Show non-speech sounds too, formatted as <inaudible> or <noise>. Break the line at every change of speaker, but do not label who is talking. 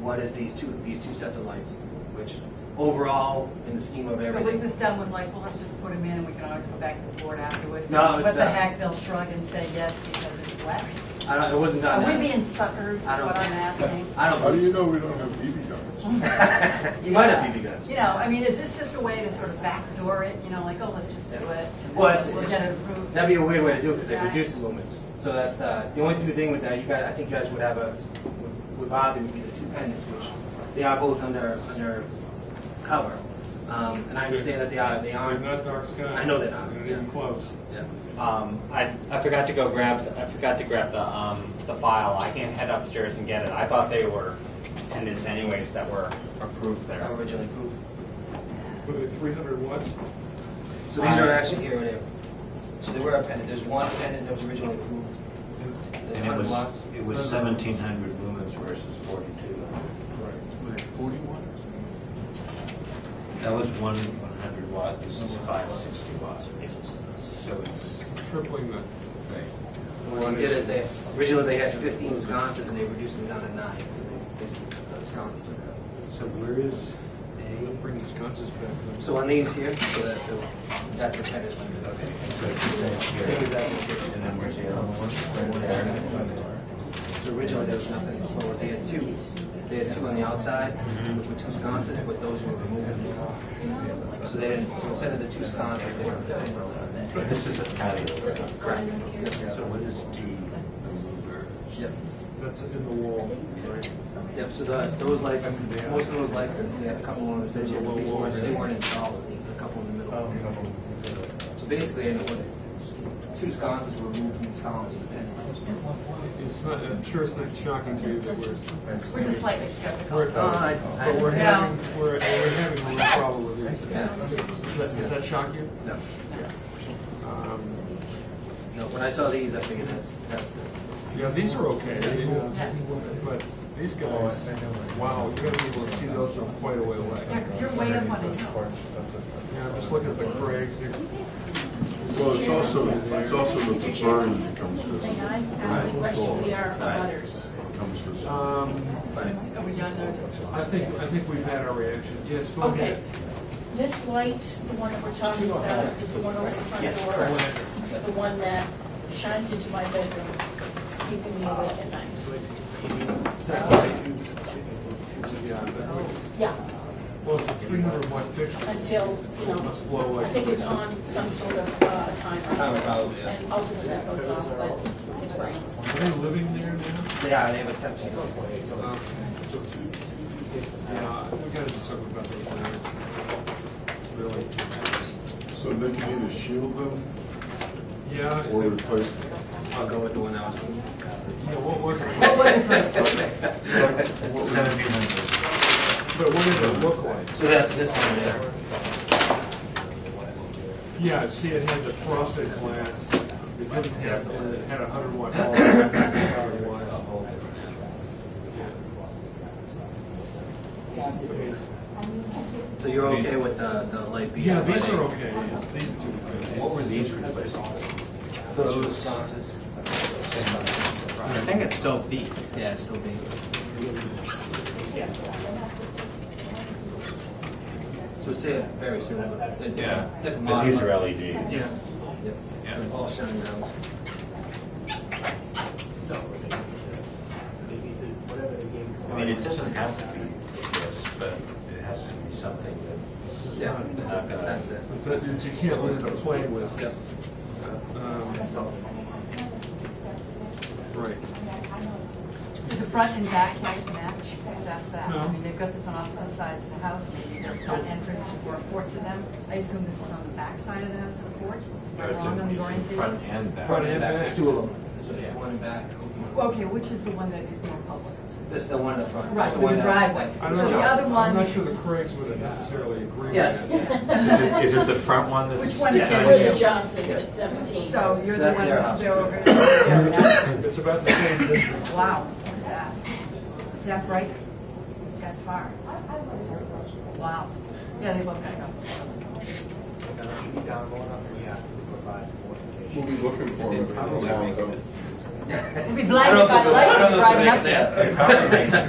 what is these two, these two sets of lights, which overall, in the scheme of
So was this
everything,
done with like, well, let's just put them in and we can always go back to the board afterwards?
No, it's
What the
not.
heck, they'll shrug and say yes because it's West?
I don't, it wasn't done.
Are we
that-
being suckered, is
I don't-
what I'm asking?
I don't.
How do you
believe
know we don't have BB guns?
so. <laughs> You might have BB guns.
You know, I mean, is this just a way to sort of backdoor it, you know, like, oh, let's just do it? and
Well, it's-
We'll get it approved.
That'd be a weird way to do it because they
Right.
reduced the lumens. So that's uh, the, the only two thing with that, you guys, I think you guys would have a, would- would bother would be the two pendants, which they are both under, under cover. Um, and I understand that they are, they
They're
aren't,
Uh, not dark sky.
I know they're not.
They're not even close.
yeah.
Um, I, I forgot to go grab, I forgot to grab the, um, the file. I can head upstairs and get it. I thought they were pendants anyways that were approved there.
that were originally approved.
Were they 300 watts?
So these are actually here, they, so they were a pendant, there's one pendant that was originally approved. There's
And it
100
was,
watts.
it was seventeen hundred lumens versus forty-two. That was one one hundred watt, this is five sixty watt. So it's,
Tripling the,
And What they did is they, originally they had fifteen sconces and they reduced them down to nine, so they, they, the sconces are better.
so where is
they'll
A?
bring the sconces back.
So on these here, so that's, so that's the tenant limit, okay.
So it's the same
Same
here.
exact location.
And then where's the other one? Right there.
So originally there was nothing, what was, they had two, they had two on the outside,
Mm-hmm.
which were two sconces, but those were removed. So they didn't, so instead of the two sconces, they were the tenant.
But this is a patio.
Correct.
So what is D? over?
Yep,
That's in the wall.
yep, so the, those lights, most of those lights, and they had a couple on the stage, these ones, they weren't installed, there's a couple in the middle.
Oh,
So basically, I know what, two sconces were removed from these columns and then.
It's not, I'm sure it's not shocking to you that we're.
We're just slightly skeptical.
we're-
Uh, I- I-
But we're
Yeah.
having, we're, we're having a real problem with these.
Yeah.
Does that, does that shock you?
No,
Um,
no, when I saw these, I figured that's, that's the,
Yeah, these are okay, I mean, uh, but these guys, wow, you're gonna be able to see those from quite a way away.
Yeah, because you're way up on a hill.
Yeah, I'm just looking at the crags here.
Well, it's also, it's also that the burn becomes visible.
May I ask a question? We are abutters.
Becomes visible.
Um,
Are we done there?
I think, I think we've had our reaction. Yes, go
Okay.
ahead.
This light, the one that we're talking about, is the one over the front door. The one that shines into my bedroom, keeping me awake at night.
Yeah, that would-
Yeah,
Well, it's a 300 watt fixture.
until, you
Must blow
know,
away.
I think it's on some sort of uh,
Timer,
timer.
probably, yeah.
And ultimately that goes off, but it's right.
Are they living there now?
they are, they have a temp sheet.
Um, Yeah, we gotta do something about those crags. Really.
So they can either shield them
Yeah, I
or
think-
replace them.
I'll go with the one that was.
yeah, what was it?
What was it for?
<laughs> Seventeen hundred.
But what did it look like?
So that's this one there.
Yeah, see, it had the frosted glass. It didn't have, and it had a hundred watt bulb. Hundred watts. Yeah. I mean,
So you're okay with the, the light being?
Yeah, these are okay, yes, these two are good.
What were these replacing?
Those are the sconces.
I think it's still B.
Yeah, it's still being. So it's uh, very similar. They- they-
Yeah,
different
but these are E
model.
Yes.
LEDs.
Yep.
Yeah.
They're All shining out.
I mean, it doesn't have to be this, but it has to be something that.
Yeah,
not gonna-
that's it.
But that you can't let it play with. Um, Right.
Did the front and back light match? Just ask that.
No.
I mean, they've got this on opposite sides of the house, maybe there's not entrance or a porch to them. I assume this is on the back side of the house and a porch?
No, it's in-
Along the
it's in
orientation?
front and back.
Front and back.
There's two of them. There's one in back. one-
Well, Okay, which is the one that is more public?
This is the one in the front.
Right,
That's
with
one
the
that-
driveway.
I
It's
don't
a
So the
know.
driveway.
other one-
I'm not sure the Craigs would have necessarily agreed
<laughs>
with
Yes.
that.
Is it, is it the front one that's?
Which one is
<laughs> It's
it?
where the Johnson's at 17.
So you're
So
the
that's
one
their
that
house.
they're over there.
It's about the same distance.
Wow, look at that. Is that bright? That far? Wow. Yeah, they both got to
We'll be looking for them. if they're long, though.
go. They'd be
I don't
blinded by the
think- I
light
don't know if
driving
they
up
can-
there.
they probably-